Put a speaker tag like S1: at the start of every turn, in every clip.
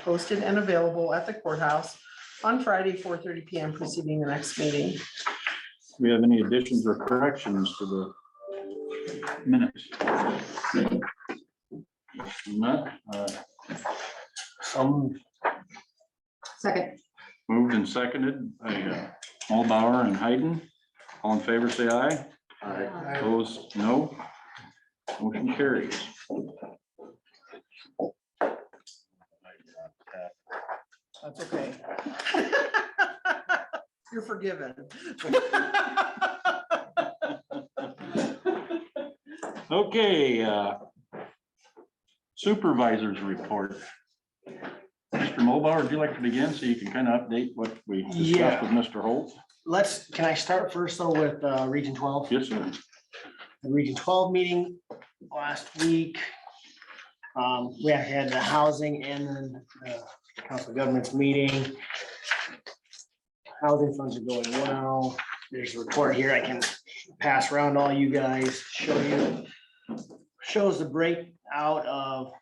S1: posted and available at the courthouse on Friday, four thirty P M preceding the next meeting.
S2: Do we have any additions or corrections to the minutes? If Not, uh,
S3: Some,
S4: Second.
S2: moved and seconded by uh, Mulbauer and Hayden. All in favor, say aye. Opposed, no. Motion carries.
S1: That's okay. You're forgiven.
S2: Okay. uh, Supervisors report. Mr. Mulbauer, would you like to begin so you can kind of update what we discussed
S3: Yeah.
S2: with Mr. Holt?
S3: let's, can I start first though with uh, Region twelve?
S2: Yes, sir.
S3: The Region twelve meeting last week. Um, we had the housing and then the council of governments meeting. Housing funds are going well. There's a report here I can pass around to all you guys, show you. Shows the breakout of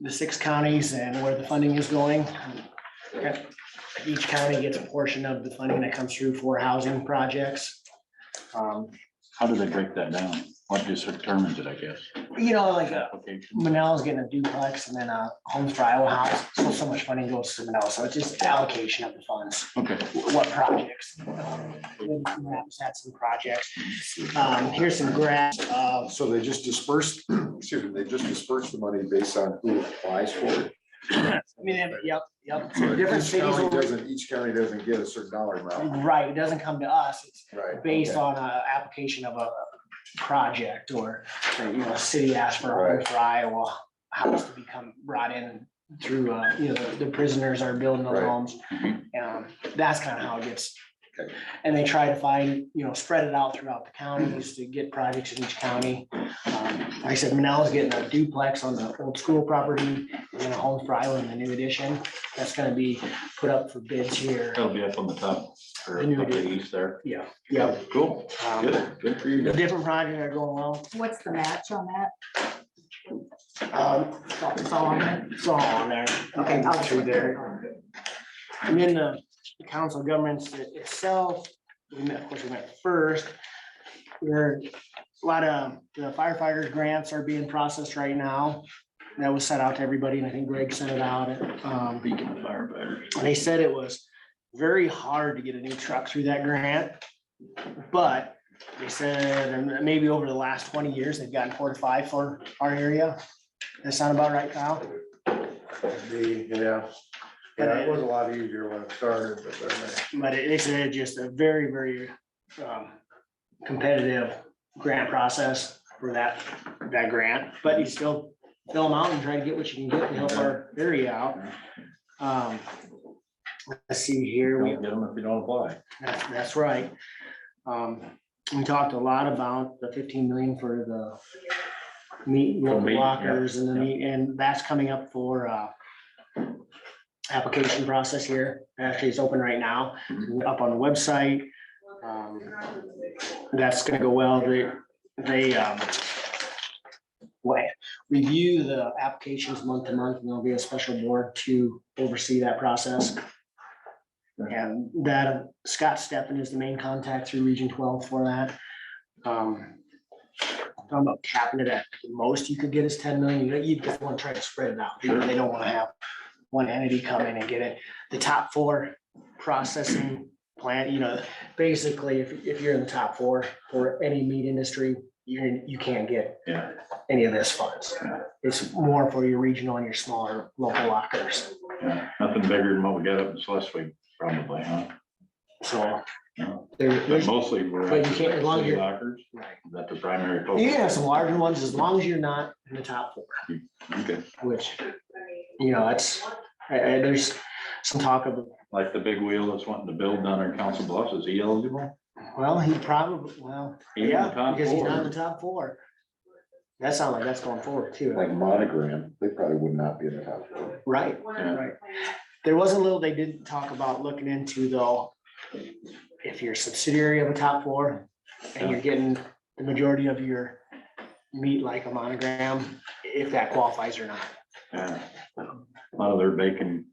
S3: the six counties and where the funding is going. Each county gets a portion of the funding that comes through for housing projects. Um,
S2: How do they break that down? What just determines it, I guess?
S3: you know, like uh,
S2: Application.
S3: Manal's getting a duplex and then a Homes for Iowa House, so so much money goes to Manal, so it's just allocation of the funds,
S2: Okay,
S3: what projects. Maps Had some projects, um, here's some graphs of,
S5: So they just dispersed, excuse me, they just dispersed the money based on who applies for it.
S3: I mean, they- yep, yep,
S5: So
S3: different
S5: Each
S3: cities,
S5: county
S3: will-
S5: doesn't, each county doesn't get a certain dollar amount,
S3: right, it doesn't come to us, it's
S5: right?
S3: based on a application of a project or, or, you know, a city asked for a home for Iowa house to become brought in through, uh, you know, the- the prisoners are building those
S5: Right.
S3: homes. Um, that's kind of how it gets.
S5: Okay.
S3: And they try to find, you know, spread it out throughout the counties to get projects in each county. Um, Like I said, Manal's getting a duplex on the old school property and a home for Iowa in the new addition. That's gonna be put up for bids here.
S5: Oh.
S2: that'll be up on the top or up
S3: I knew it
S2: to the
S3: did.
S2: east there.
S3: Yeah. Yep.
S2: Cool,
S3: Um,
S2: good, good for you.
S3: The
S2: guys.
S3: different projects are going well.
S4: What's the match on that?
S3: Um,
S4: It's all on there?
S3: It's all on there.
S4: Okay, I'll
S3: Through there. And then the council of governments i- itself, we met, of course, we met first. There, a lot of the firefighters grants are being processed right now. That was sent out to everybody and I think Greg sent it out. Um,
S2: Beacon firefighter.
S3: They said it was very hard to get a new truck through that grant. But they said, and maybe over the last twenty years, they've gotten four to five for our area. That sound about right, Kyle?
S5: Yeah, yeah, it was a lot easier when it started, but then.
S3: But it- it's a- just a very, very um, competitive grant process for that, that grant, but you still fill them out and try to get what you can get to help our area out. Um, Let's see here. we-
S2: Don't get them if you don't apply.
S3: That's, that's right. Um, we talked a lot about the fifteen million for the meat
S2: For meat, yeah,
S3: lockers and the
S2: yeah.
S3: meat, and that's coming up for, uh, application process here. Actually, it's open right now,
S2: Mhm.
S3: up on the website. Um, That's gonna go well. They, they, um, what, review the applications month to month, and there'll be a special board to oversee that process. And that Scott Steppen is the main contact through Region twelve for that. Um, Talking about capping it at the most you could get is ten million, you you just want to try to spread it out,
S2: Sure.
S3: they don't want to have one entity come in and get it. The top four processing plant, you know, basically, if, if you're in the top four for any meat industry, you, you can't get
S2: Yeah.
S3: any of this funds. It's more for your regional and your smaller local lockers.
S2: Yeah, Nothing bigger than what we got up in Schleswig, probably, huh?
S3: So.
S2: Yeah.
S3: there-
S2: But
S3: there's-
S2: mostly we're.
S3: But you can't- as long as
S2: City
S3: you're-
S2: lockers,
S3: right.
S2: is that the primary
S3: You can
S2: focus?
S3: have some larger ones as long as you're not in the top four,
S2: Okay,
S3: which, you know, it's, I- I- there's some talk of,
S2: Like the big wheel that's wanting to build down our council bluffs, is he eligible?
S3: well, he probably, well,
S2: He's in the
S3: yeah,
S2: top
S3: because he's not in
S2: four.
S3: the top four. That sounds like that's going forward too,
S5: Like monogram, they probably would not be in the top. four.
S3: right?
S2: Yeah.
S3: Right. There was a little they did talk about looking into though. If you're a subsidiary of a top four and you're getting the majority of your meat like a monogram, if that qualifies or not.
S2: Yeah. A lot of their bacon